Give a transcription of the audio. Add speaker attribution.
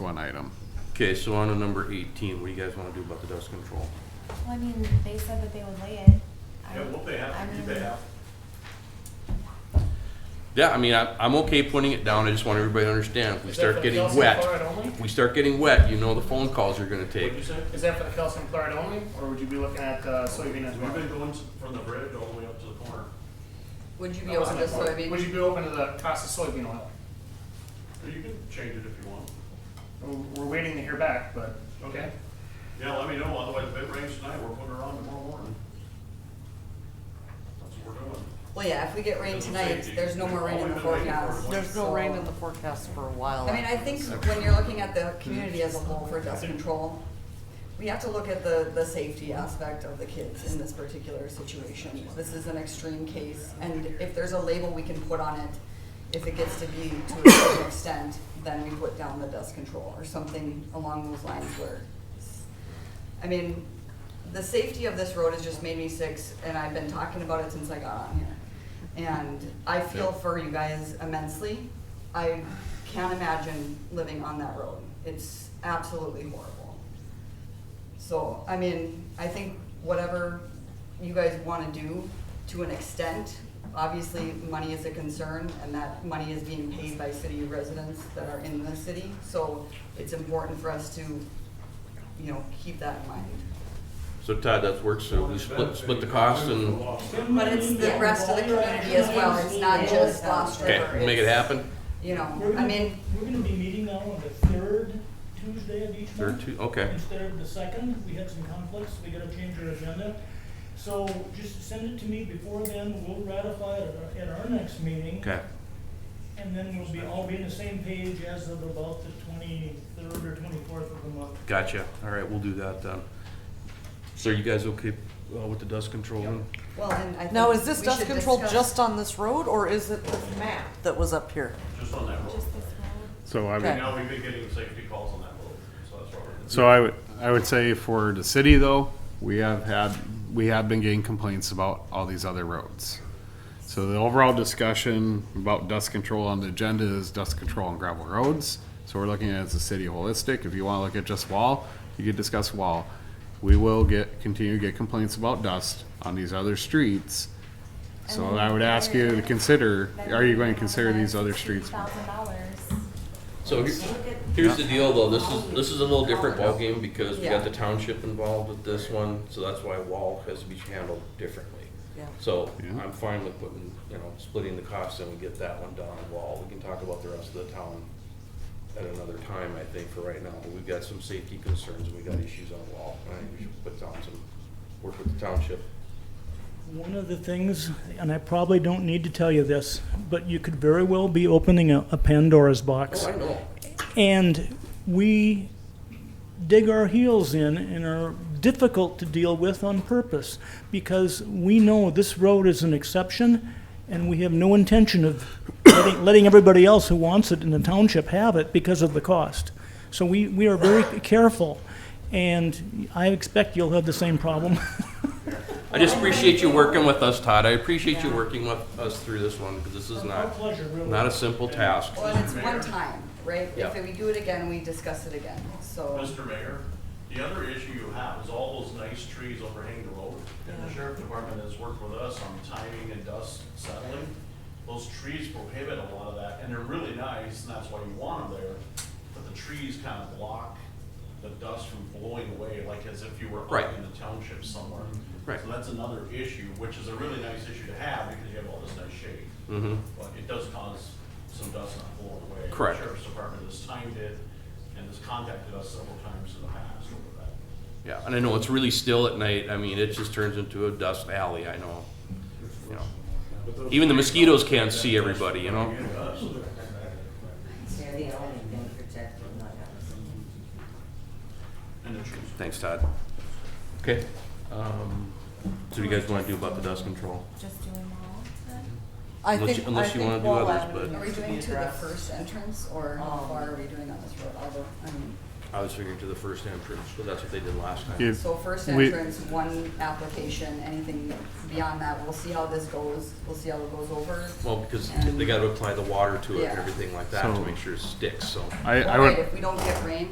Speaker 1: one item.
Speaker 2: Okay, so on to number eighteen, what do you guys wanna do about the dust control?
Speaker 3: Well, I mean, they said that they would lay it. I
Speaker 4: Yeah,
Speaker 3: don't-
Speaker 4: what they
Speaker 3: I
Speaker 4: have,
Speaker 3: mean,
Speaker 4: do they have?
Speaker 2: Yeah, I mean, I, I'm okay putting it down, I just want everybody to understand, if we
Speaker 5: Is that
Speaker 2: start
Speaker 5: for the
Speaker 2: getting
Speaker 5: calcium
Speaker 2: wet,
Speaker 5: chloride only?
Speaker 2: if we start getting wet, you know the phone calls you're gonna take.
Speaker 4: What'd you say?
Speaker 5: Is that for the calcium chloride only, or would you be looking at uh, soybean as
Speaker 4: We've
Speaker 5: well?
Speaker 4: been going from the bridge all the way up to the corner.
Speaker 6: Would you be open to
Speaker 5: Would
Speaker 6: soybean?
Speaker 5: you be open to the cost of soybean oil?
Speaker 4: You can change it if you want.
Speaker 5: We're- We're waiting to hear back, but, okay.
Speaker 4: Yeah, let me know, otherwise if it rains tonight, we're putting her on tomorrow morning. That's what we're doing.
Speaker 6: Well, yeah, if we get rain tonight, there's no more rain in the forecast.
Speaker 7: There's no rain
Speaker 6: so-
Speaker 7: in the forecast for a while.
Speaker 6: I mean, I think when you're looking at the community as a whole for dust control, we have to look at the, the safety aspect of the kids in this particular situation. This is an extreme case, and if there's a label we can put on it, if it gets to be to a certain extent, then we put down the dust control or something along those lines where I mean, the safety of this road has just made me sick, and I've been talking about it since I got on here. And I feel for you guys immensely. I can't imagine living on that road. It's absolutely horrible. So, I mean, I think whatever you guys wanna do to an extent, obviously, money is a concern, and that money is being paid by city residents that are in the city, so it's important for us to, you know, keep that in mind.
Speaker 2: So Todd, that's works, so we split, split the costs and,
Speaker 6: But it's the rest of the community as well, it's not just Lost
Speaker 2: okay,
Speaker 6: River.
Speaker 2: we'll make it
Speaker 6: it's,
Speaker 2: happen,
Speaker 6: You
Speaker 8: We're
Speaker 6: know, I
Speaker 8: gonna-
Speaker 6: mean,
Speaker 8: We're gonna be meeting now on the third Tuesday of each month.
Speaker 2: third two, okay.
Speaker 8: Instead of the second, we had some conflicts, we gotta change our agenda. So just send it to me before then, we'll ratify it at our- at our next meeting.
Speaker 2: Okay,
Speaker 8: And then we'll be, all be on the same page as of about the twenty-third or twenty-fourth of the month.
Speaker 2: gotcha, all right, we'll do that then. So are you guys okay uh, with the dust control? then?
Speaker 6: well, and I think.
Speaker 7: Now, is this
Speaker 6: we
Speaker 7: dust
Speaker 6: should
Speaker 7: control
Speaker 6: discuss-
Speaker 7: just on this road, or is it the map that was up here?
Speaker 4: Just on that road.
Speaker 3: Just this one.
Speaker 1: So I would,
Speaker 7: Okay.
Speaker 4: Now we've been getting safety calls on that road, so that's what we're doing.
Speaker 1: so I would, I would say for the city though, we have had, we have been getting complaints about all these other roads. So the overall discussion about dust control on the agenda is dust control on gravel roads. So we're looking at it as a city holistic. If you wanna look at just wall, you could discuss wall. We will get, continue to get complaints about dust on these other streets. So
Speaker 3: And then
Speaker 1: I would ask you to consider, are you going to consider these other streets?
Speaker 3: Thousand dollars.
Speaker 2: So here- here's the deal though, this is, this is a little different ballgame because we got
Speaker 6: Yeah.
Speaker 2: the township involved with this one, so that's why wall has to be handled differently.
Speaker 7: Yeah.
Speaker 2: So
Speaker 1: Yeah.
Speaker 2: I'm fine with putting, you know, splitting the costs and we get that one down on wall. We can talk about the rest of the town at another time, I think, for right now. But we've got some safety concerns and we got issues on wall. And I think we should put down some, work with the township.
Speaker 8: One of the things, and I probably don't need to tell you this, but you could very well be opening a a Pandora's box.
Speaker 2: Oh, I know.
Speaker 8: And we dig our heels in and are difficult to deal with on purpose because we know this road is an exception and we have no intention of letting, letting everybody else who wants it in the township have it because of the cost. So we, we are very careful and I expect you'll have the same problem.
Speaker 2: I just appreciate you working with us, Todd. I appreciate you working with us through this one because this is
Speaker 8: Our
Speaker 2: not,
Speaker 8: pleasure, really.
Speaker 2: not a simple task.
Speaker 6: Well, and it's one time, right?
Speaker 2: Yeah.
Speaker 6: If we do it again, we discuss it again, so.
Speaker 4: Mr. Mayor, the other issue you have is all those nice trees overhang the road. And the sheriff department has worked with us on timing and dust settling. Those trees prohibit a lot of that, and they're really nice, and that's why you want them there. But the trees kind of block the dust from blowing away, like as if you were
Speaker 2: Right. Mm-hmm.
Speaker 4: up in the township somewhere.
Speaker 2: Right.
Speaker 4: So that's another issue, which is a really nice issue to have because you have all this nice shade.
Speaker 2: Mm-hmm.
Speaker 4: But it does cause some dust not blowing away. The
Speaker 2: Correct.
Speaker 4: Sheriff's Department has timed it and has contacted us several times in the past over that.
Speaker 2: Yeah, and I know it's really still at night. I mean, it just turns into a dust alley, I know. You know. Even the mosquitoes can't see everybody, you know?
Speaker 9: They're the only thing protected, not us.
Speaker 4: And the trees.
Speaker 2: Thanks, Todd. Okay. um, So what do you guys wanna do about the dust control?
Speaker 3: Just doing wall then?
Speaker 7: I
Speaker 2: Unless you-
Speaker 7: think, I
Speaker 2: unless you wanna
Speaker 7: think
Speaker 2: do
Speaker 7: Wall
Speaker 2: others,
Speaker 7: Avenue
Speaker 2: but-
Speaker 6: Are we
Speaker 7: needs to be Um,
Speaker 6: doing to the
Speaker 7: addressed.
Speaker 6: first entrance, or how far are we doing on this road? Although, I mean,
Speaker 2: I was figuring to the first entrance, but that's what they did last time.
Speaker 1: If
Speaker 6: So first
Speaker 1: we-
Speaker 6: entrance, one application, anything beyond that, we'll see how this goes, we'll see how it goes over.
Speaker 2: Well, because they gotta apply the water to it and
Speaker 6: Yeah.
Speaker 2: everything like that to
Speaker 1: So-
Speaker 2: make sure it sticks, so.
Speaker 1: I, I
Speaker 6: Well,
Speaker 1: would.
Speaker 6: wait, If we don't get rain,